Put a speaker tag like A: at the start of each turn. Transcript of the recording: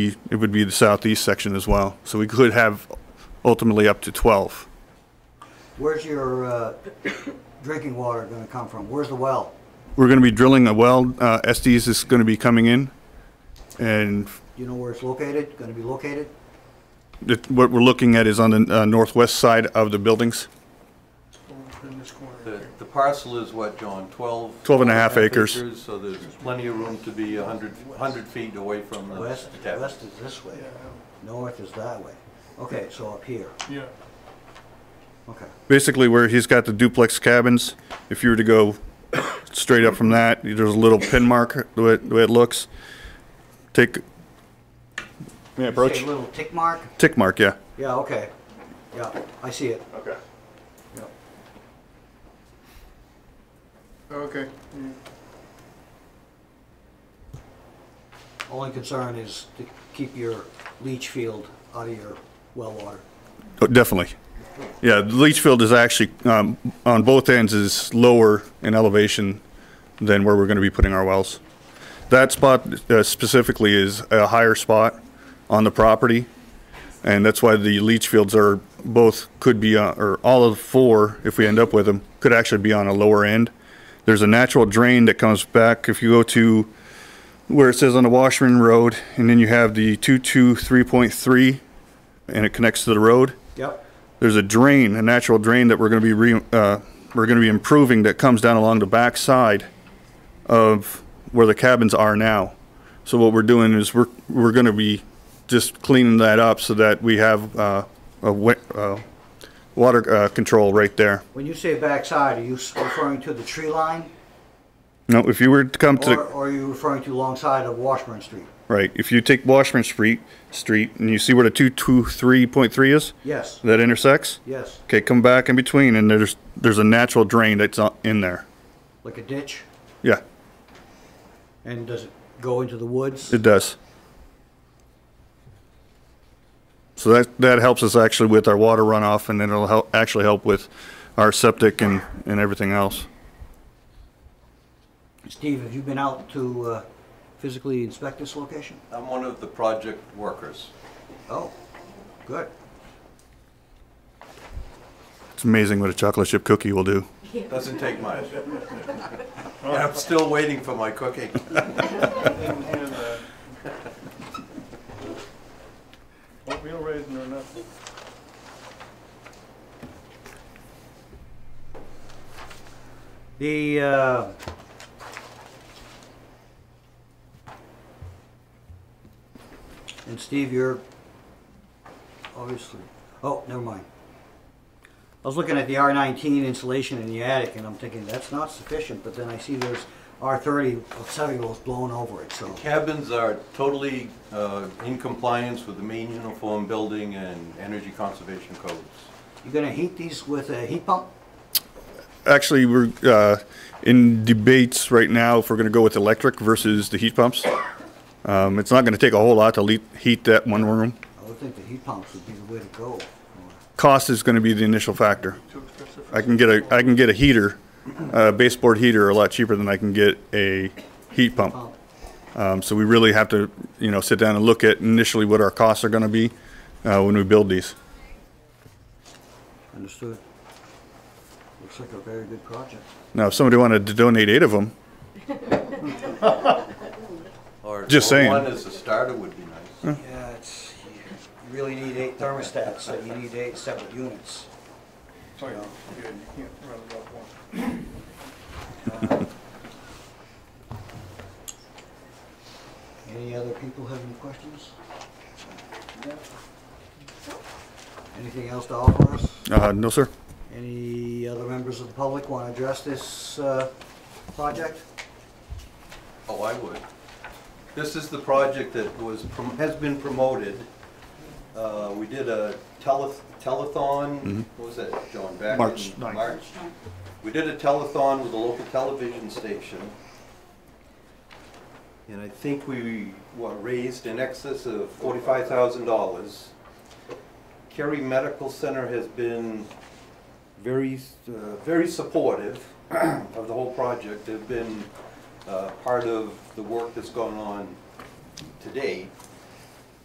A: it would be the southeast section as well. So we could have ultimately up to 12.
B: Where's your uh, drinking water going to come from? Where's the well?
A: We're going to be drilling a well. Uh, Estes is going to be coming in. And
B: Do you know where it's located, going to be located?
A: it- what we're looking at is on the uh, northwest side of the buildings.
C: in this corner
D: The the parcel is what, John, 12?
A: 12 and a half acres.
D: So there's plenty of room to be 100, 100 feet away from the
B: West,
D: tap.
B: west is this way, north is that way. Okay, so up here,
C: Yeah,
B: okay.
A: Basically where he's got the duplex cabins, if you were to go straight up from that, there's a little pin mark, the way, the way it looks. Take, may I approach?
B: Say little tick mark?
A: Tick mark, yeah.
B: Yeah, okay. Yeah, I see it.
A: Okay.
B: Yeah.
C: okay. yeah.
B: Only concern is to keep your leach field out of your well water.
A: Oh, Definitely. Yeah, the leach field is actually, um, on both ends is lower in elevation than where we're gonna be putting our wells. That spot uh, specifically is a higher spot on the property, and that's why the leach fields are both, could be, uh, or all of four, if we end up with them, could actually be on a lower end. There's a natural drain that comes back, if you go to where it says on the Washburn Road, and then you have the two-two-three-point-three, and it connects to the road
B: Yep.
A: there's a drain, a natural drain that we're going to be, re- uh, we're going to be improving that comes down along the back side of where the cabins are now. So what we're doing is we're, we're going to be just cleaning that up so that we have, uh, a wa- uh, water, uh, control right there.
B: When you say backside, are you s- referring to the tree line?
A: No, if you were to come to,
B: Or
A: the
B: or are you referring to alongside of Washburn Street?
A: right, if you take Washburn Street, Street, and you see where the two, two, three point three is?
B: Yes,
A: That intersects?
B: yes,
A: Okay, come back in between and there's, there's a natural drain that's on- in there.
B: like a ditch?
A: Yeah,
B: And does it go into the woods?
A: It does. So that, that helps us actually with our water runoff and then it'll help, actually help with our septic and, and everything else.
B: Steve, have you been out to uh, physically inspect this location?
D: I'm one of the project workers.
B: Oh, good.
A: It's amazing what a chocolate chip cookie will do.
D: Doesn't take much. And I'm still waiting for my cooking.
C: And, uh, Oatmeal raisin or nothing.
B: The, uh, and Steve, you're obviously, oh, never mind. I was looking at the R nineteen insulation in the attic and I'm thinking that's not sufficient, but then I see there's R thirty cellulose blown over it, so.
D: Cabins are totally uh, in compliance with the main uniform building and energy conservation codes.
B: You're gonna heat these with a heat pump?
A: Actually, we're, uh, in debates right now if we're gonna go with electric versus the heat pumps. Um, it's not gonna take a whole lot to le- heat that one room.
B: I would think the heat pumps would be the way to go.
A: Cost is gonna be the initial factor.
C: Too expensive. for
A: I can get a, I can get a heater, a baseboard heater a lot cheaper than I can get a heat pump.
B: Pump.
A: Um, so we really have to, you know, sit down and look at initially what our costs are going to be uh, when we build these.
B: Understood. Looks like a very good project.
A: Now, if somebody wanted to donate eight of them,
D: Or-
A: Just
D: or
A: saying.
D: One as a starter would be nice.
B: Yeah, it's, you really need eight thermostats, so you need eight separate units.
C: It's like, Oh, yeah, you can't run it off one.
B: Any other people have any questions? Anything else to offer us?
A: uh, no, sir.
B: Any other members of the public want to address this uh, project?
D: Oh, I would. This is the project that was, prom- has been promoted. Uh, We did a teleth- telethon, what was that, John, back in
A: Mm-hmm. March ninth.
D: March? We did a telethon with a local television station. And I think we, what, raised in excess of forty-five thousand dollars. Cary Medical Center has been very, uh, very supportive of the whole project. They've been uh, part of the work that's gone on to date.